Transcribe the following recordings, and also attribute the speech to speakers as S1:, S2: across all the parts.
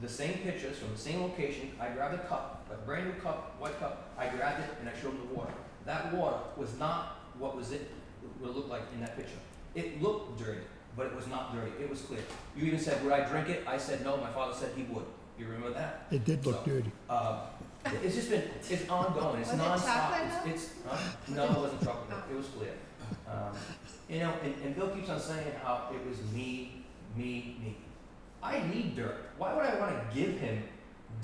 S1: the same pictures from the same location, I grabbed a cup, a brand new cup, white cup, I grabbed it and I showed them the water. That water was not what was it, what it looked like in that picture. It looked dirty, but it was not dirty, it was clear. You even said, would I drink it? I said no, my father said he would. You remember that?
S2: It did look
S1: So-
S2: dirty.
S1: Uh, it's just been, it's ongoing, it's
S3: Was it
S1: nonstop,
S3: chocolate
S1: it's,
S3: milk?
S1: it's, huh? no, it wasn't chocolate milk, it was clear. Um, You know, and, and Bill keeps on saying how it was me, me, me. I need dirt, why would I wanna give him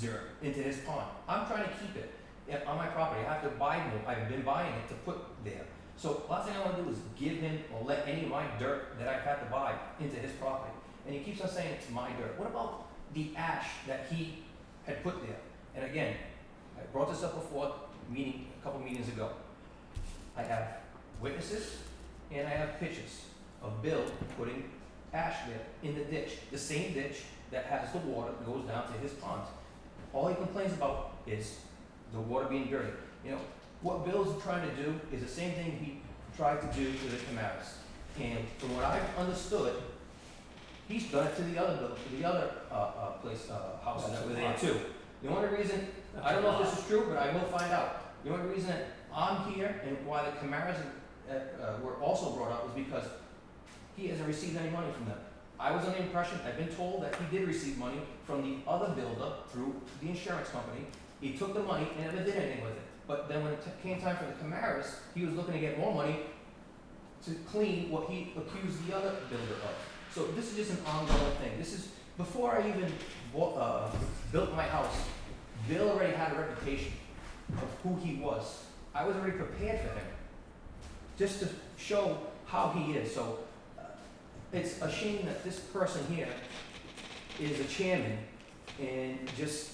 S1: dirt into his pond? I'm trying to keep it yeah, on my property, I have to buy more, I've been buying it to put there. So last thing I wanna do is give him or let any of my dirt that I've had to buy into his property. And he keeps on saying it's my dirt, what about the ash that he had put there? And again, I brought this up before, meeting, a couple meetings ago. I have witnesses and I have pictures of Bill putting ash there in the ditch, the same ditch that has the water that goes down to his pond. All he complains about is the water being dirty. You know, what Bill's trying to do is the same thing he tried to do to the Camaras. And from what I've understood, he's done it to the other, bill- to the other, uh, uh, place, uh, houses that were there too. The only reason I don't know if this is true, but I will find out. The only reason that I'm here and why the Camaras uh, uh, were also brought up was because he hasn't received any money from them. I was under the impression, I've been told that he did receive money from the other builder through the insurance company. He took the money and never did anything with it. But then when it t- came time for the Camaras, he was looking to get more money to clean what he accused the other builder of. So this is just an ongoing thing. This is, before I even bought, uh, built my house, Bill already had a reputation of who he was. I was already prepared for him, just to show how he is. So uh, it's a shame that this person here is a chairman and just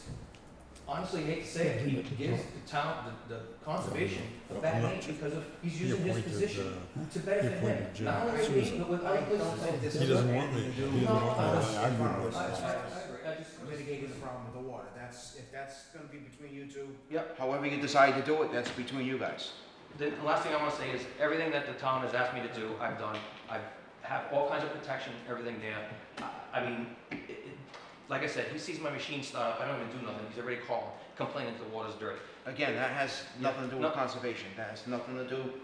S1: honestly I hate to say it, he gives the town, the, the conservation a bad name because of, he's
S4: He
S1: using his
S4: appointed,
S1: position
S4: uh,
S1: to benefit him.
S4: appointed
S1: Not
S4: Jim
S1: only with me,
S4: Susan.
S1: but with other places.
S4: He doesn't want me. He doesn't want me. I I agree with
S1: I, I, I
S4: that.
S1: agree. I just-
S5: mitigating the problem with the water, that's, if that's gonna be between you two.
S1: Yep.
S5: However you decide to do it, that's between you guys.
S1: The the last thing I want to say is, everything that the town has asked me to do, I've done. I have all kinds of protection, everything there. I- I mean, it- it- like I said, he sees my machine start up, I don't even do nothing, he's already calling, complaining that the water's dirty.
S5: Again, that has nothing to do
S1: No.
S5: with conservation, that has nothing to do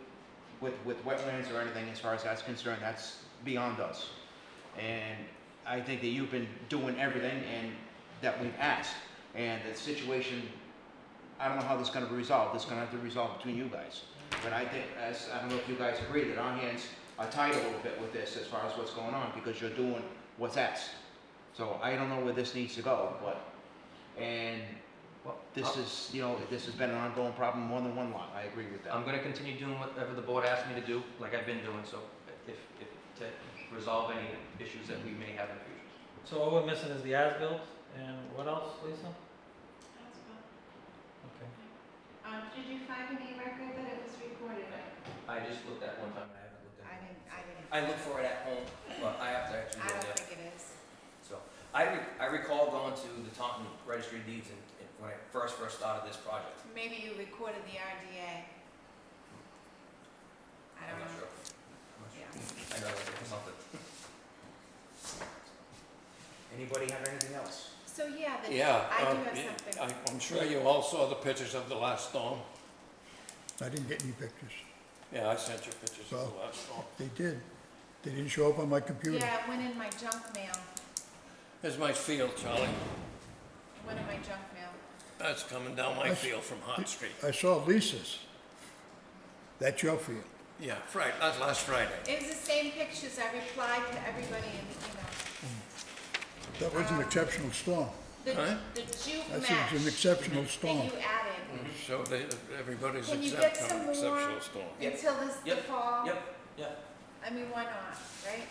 S5: with, with wetlands or anything as far as that's concerned, that's beyond us. And I think that you've been doing everything and, that we've asked, and the situation, I don't know how this is gonna be resolved, it's gonna have to resolve between you guys. But I think, as, I don't know if you guys agree, that our hands are tied a little bit with this as far as what's going on, because you're doing what's asked. So I don't know where this needs to go, but, and
S1: Well,
S5: this is, you know, this has been an ongoing problem more than one lot, I agree with that.
S1: I'm gonna continue doing whatever the board asks me to do, like I've been doing, so if, if, to resolve any issues that we may have in the future.
S6: So all we're missing is the as-built, and what else, Lisa?
S3: That's fine.
S6: Okay.
S3: Um, did you find any record that it was recorded?
S1: I just looked at one time, and I haven't looked at it.
S3: didn't.
S1: I look for it at home, but I have to actually go there.
S3: think it is.
S1: So I, re- I recall going to the Taunton Registry of Deeds and, and when I first, first started this project.
S3: Maybe you recorded the RDA. I
S1: I'm
S3: don't
S1: not
S3: know.
S1: sure. I'm not sure.
S3: Yeah.
S1: I know I was looking for something.
S5: Anybody have anything else?
S3: So, yeah, the,
S7: Yeah.
S3: I do
S7: um,
S3: have
S7: yeah,
S3: something.
S7: I- I'm sure you all saw the pictures of the last storm.
S2: I didn't get any pictures.
S7: Yeah, I sent you pictures of the
S2: Well-
S7: last storm.
S2: They did. They didn't show up on my computer.
S3: Yeah, it went in my junk mail,
S7: Here's my field, Charlie.
S3: went in my junk mail.
S7: That's coming down my
S2: That's-
S7: field from Hart Street.
S2: I saw Lisa's. That's your field.
S7: Yeah, Friday, not last Friday.
S3: It was the same pictures, I replied to everybody in
S2: That was an exceptional storm.
S3: the email.
S7: Huh?
S3: The, the
S2: That
S3: juke match
S2: seems an exceptional
S3: that
S2: storm.
S3: you added
S7: So they, everybody's
S3: Can you
S7: exempt
S3: get
S7: from
S3: some more?
S7: exceptional storm.
S1: Yep.
S3: until this, the
S1: Yep.
S3: fall.
S1: Yep, yeah.
S3: I mean, why not, right?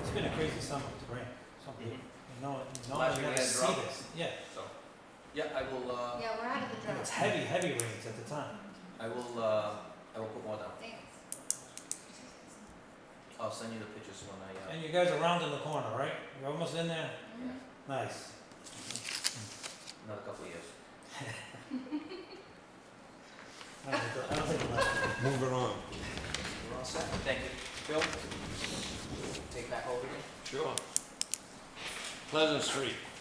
S6: It's been a crazy summer with the rain, something,
S1: Mhm.
S6: and no, one- no
S1: Last
S6: one's
S1: year we
S6: ever
S1: had
S6: seen
S1: drought.
S6: this. Yeah,
S1: So, yeah, I will, uh,
S3: Yeah, we're out of the
S6: and
S3: drought.
S6: it's heavy, heavy rains at the time.
S1: I will, uh, I will put more down.
S3: Thanks.
S1: I'll send you the pictures when I, uh,
S6: And you guys are rounding the corner, right? You're almost in there?
S3: Mhm.
S6: Nice.
S1: another couple of years.
S6: I don't think- I don't think it'll last.
S4: Moving on.
S5: We're all set?
S1: Thank you. Bill, take that over again.
S7: Sure. Pleasant Street.